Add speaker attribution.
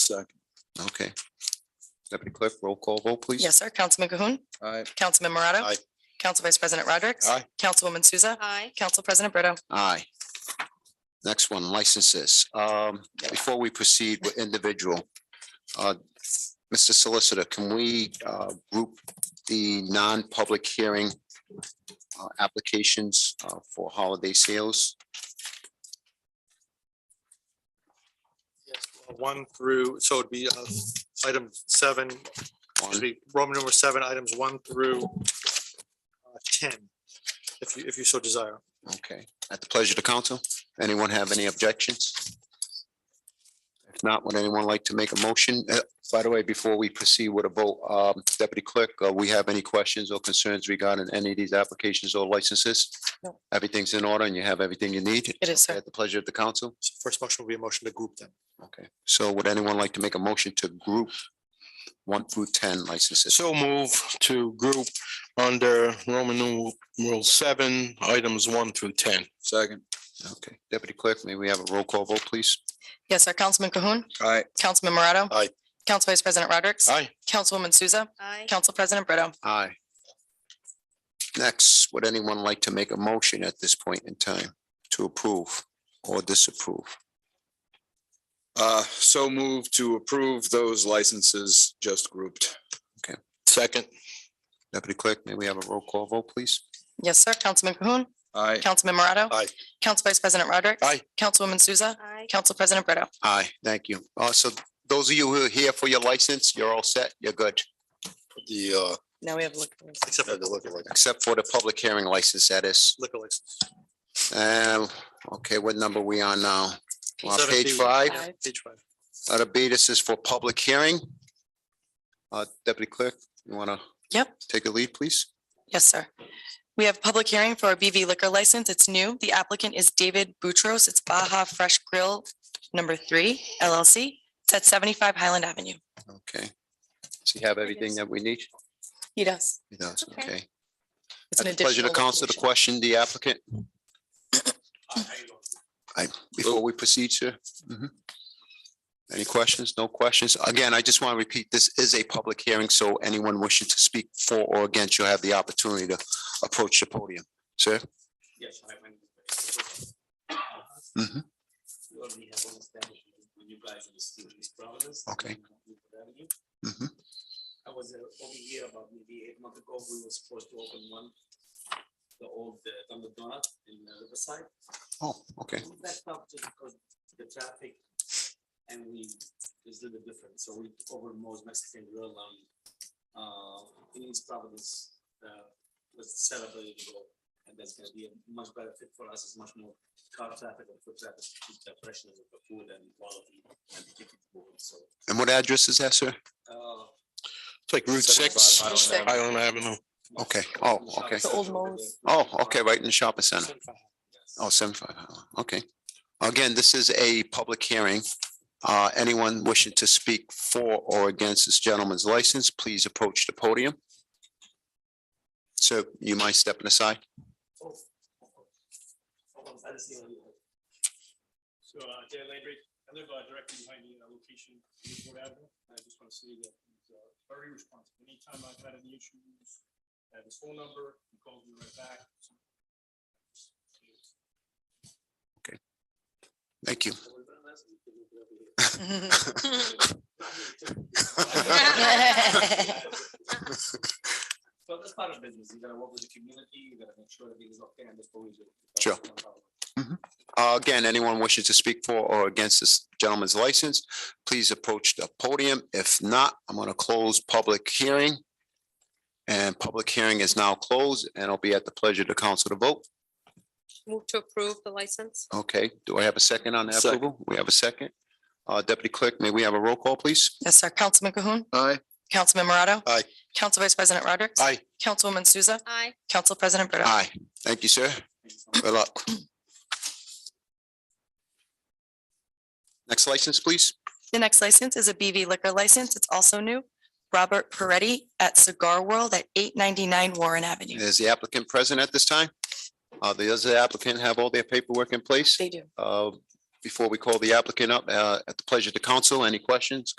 Speaker 1: Second.
Speaker 2: Okay. Deputy Clerk, roll call vote, please.
Speaker 3: Yes, sir. Councilman Cahoon.
Speaker 1: Aye.
Speaker 3: Councilman Morato.
Speaker 1: Aye.
Speaker 3: Council Vice President Rodrick.
Speaker 1: Aye.
Speaker 3: Councilwoman Souza.
Speaker 4: Aye.
Speaker 3: Council President Brito.
Speaker 2: Aye. Next one, licenses. Um, before we proceed with individual. uh, Mr. Solicitor, can we uh group the non-public hearing uh, applications uh, for holiday sales?
Speaker 5: Yes, One through, so it'd be uh, item seven,
Speaker 2: One,
Speaker 5: excuse me, Roman number seven, items one through uh, ten, if you, if you so desire.
Speaker 2: okay, at the pleasure of the council. Anyone have any objections? If not, would anyone like to make a motion? Uh, By the way, before we proceed with a vote, um, Deputy Clerk, uh, we have any questions or concerns regarding any of these applications or licenses?
Speaker 3: No.
Speaker 2: Everything's in order and you have everything you need?
Speaker 3: It is, sir.
Speaker 2: At the pleasure of the council?
Speaker 5: So First motion will be a motion to group them.
Speaker 2: Okay, so would anyone like to make a motion to group one through ten licenses?
Speaker 6: So move to group under Roman numeral seven, items one through ten.
Speaker 1: Second.
Speaker 2: Okay, Deputy Clerk, may we have a roll call vote, please?
Speaker 3: Yes, sir. Councilman Cahoon.
Speaker 1: Aye.
Speaker 3: Councilman Morato.
Speaker 5: Aye.
Speaker 3: Council Vice President Rodrick.
Speaker 6: Aye.
Speaker 3: Councilwoman Souza.
Speaker 4: Aye.
Speaker 3: Council President Brito.
Speaker 2: Aye. Next, would anyone like to make a motion at this point in time to approve or disapprove?
Speaker 1: Uh, so move to approve those licenses just grouped.
Speaker 6: Second,
Speaker 2: Deputy Clerk, may we have a roll call vote, please?
Speaker 3: Yes, sir. Councilman Cahoon.
Speaker 1: Aye.
Speaker 3: Councilman Morato.
Speaker 5: Aye.
Speaker 3: Council Vice President Rodrick.
Speaker 6: Aye.
Speaker 3: Councilwoman Souza.
Speaker 4: Aye.
Speaker 3: Council President Brito.
Speaker 2: Aye, thank you. Uh, so those of you who are here for your license, you're all set, you're good,
Speaker 5: The, uh.
Speaker 3: Now we have look.
Speaker 5: Except for the liquor license.
Speaker 2: except for the public hearing license, that is.
Speaker 5: Liquor license.
Speaker 2: Um, okay, what number we on now? On
Speaker 5: Seven
Speaker 2: page
Speaker 5: B.
Speaker 2: five?
Speaker 5: Yeah, Page five.
Speaker 2: Uh, the B, this is for public hearing. Uh, Deputy Clerk, you want to?
Speaker 3: Yep.
Speaker 2: Take a lead, please.
Speaker 3: Yes, sir. We have public hearing for a BV liquor license. It's new. The applicant is David Boutros. It's Baja Fresh Grill number three LLC. It's at seventy-five Highland Avenue.
Speaker 2: Okay. Does he have everything that we need?
Speaker 3: He does.
Speaker 2: He does,
Speaker 4: Okay.
Speaker 2: okay.
Speaker 3: It's
Speaker 2: At
Speaker 3: an
Speaker 2: the pleasure
Speaker 3: additional.
Speaker 2: to counsel to
Speaker 3: location.
Speaker 2: question the applicant. I, before we proceed, sir. Mhm. Any questions? No questions? Again, I just want to repeat, this is a public hearing, so anyone wishing to speak for or against, you'll have the opportunity to approach the podium. Sir?
Speaker 7: Yes, I went.
Speaker 2: Mhm.
Speaker 7: We already have one establishment with you guys in the city of East Providence. uh,
Speaker 2: Okay.
Speaker 7: on Newport Avenue.
Speaker 2: Mhm.
Speaker 7: I was uh, over here about maybe eight months ago, we were supposed to open one, the old uh, Dunkin' Donut in uh, Riverside.
Speaker 2: Oh, okay.
Speaker 7: We backed up just because the traffic and we, it's a little bit different, so we took over most Mexican grill on, uh, in East Providence, uh, was celebrated ago. And that's gonna be a much better fit for us, it's much more car traffic and foot traffic, to keep the freshness of the food and quality and the ticket board, so.
Speaker 2: And what address is that, sir?
Speaker 7: uh,
Speaker 6: it's like Route six,
Speaker 3: Route six.
Speaker 6: Island Avenue.
Speaker 2: Okay. Oh, okay.
Speaker 3: The old Moe's.
Speaker 2: Oh, okay, right in the shopping center.
Speaker 7: Yes.
Speaker 2: Oh, 75. Highland, okay. Again, this is a public hearing. Uh, anyone wishing to speak for or against this gentleman's license, please approach the podium. So you mind stepping aside?
Speaker 7: uh, So, uh, Dan Landry, I live uh, directly behind the uh, location, Newport Avenue, and I just want to say that he's uh, very responsive, anytime I've had any issues, I have his phone number, he calls me right back.
Speaker 2: Thank you.
Speaker 7: But that's part of business, you gotta work with the community, you gotta make sure that things are fair and before we do.
Speaker 2: Sure. Uh, Again, anyone wishing to speak for or against this gentleman's license, please approach the podium. If not, I'm going to close public hearing. And public hearing is now closed and it'll be at the pleasure of the council to vote.
Speaker 4: Move to approve the license?
Speaker 2: Okay, do I have a second on that
Speaker 1: Second.
Speaker 2: approval? We have a second. Uh, Deputy Clerk, may we have a roll call, please?
Speaker 3: Yes, sir. Councilman Cahoon.
Speaker 1: Aye.
Speaker 3: Councilman Morato.
Speaker 5: Aye.
Speaker 3: Council Vice President Rodrick.
Speaker 6: Aye.
Speaker 3: Councilwoman Souza.
Speaker 4: Aye.
Speaker 3: Council President Brito.
Speaker 2: Aye, thank you, sir. Good luck. Next license, please.
Speaker 3: The next license is a BV liquor license. It's also new. Robert Peretti at Cigar World at eight ninety-nine Warren Avenue.
Speaker 2: Is the applicant present at this time? Uh, Does the applicant have all their paperwork in place?
Speaker 3: They do.
Speaker 2: Uh, Before we call the applicant up, uh, at the pleasure of the council, any questions,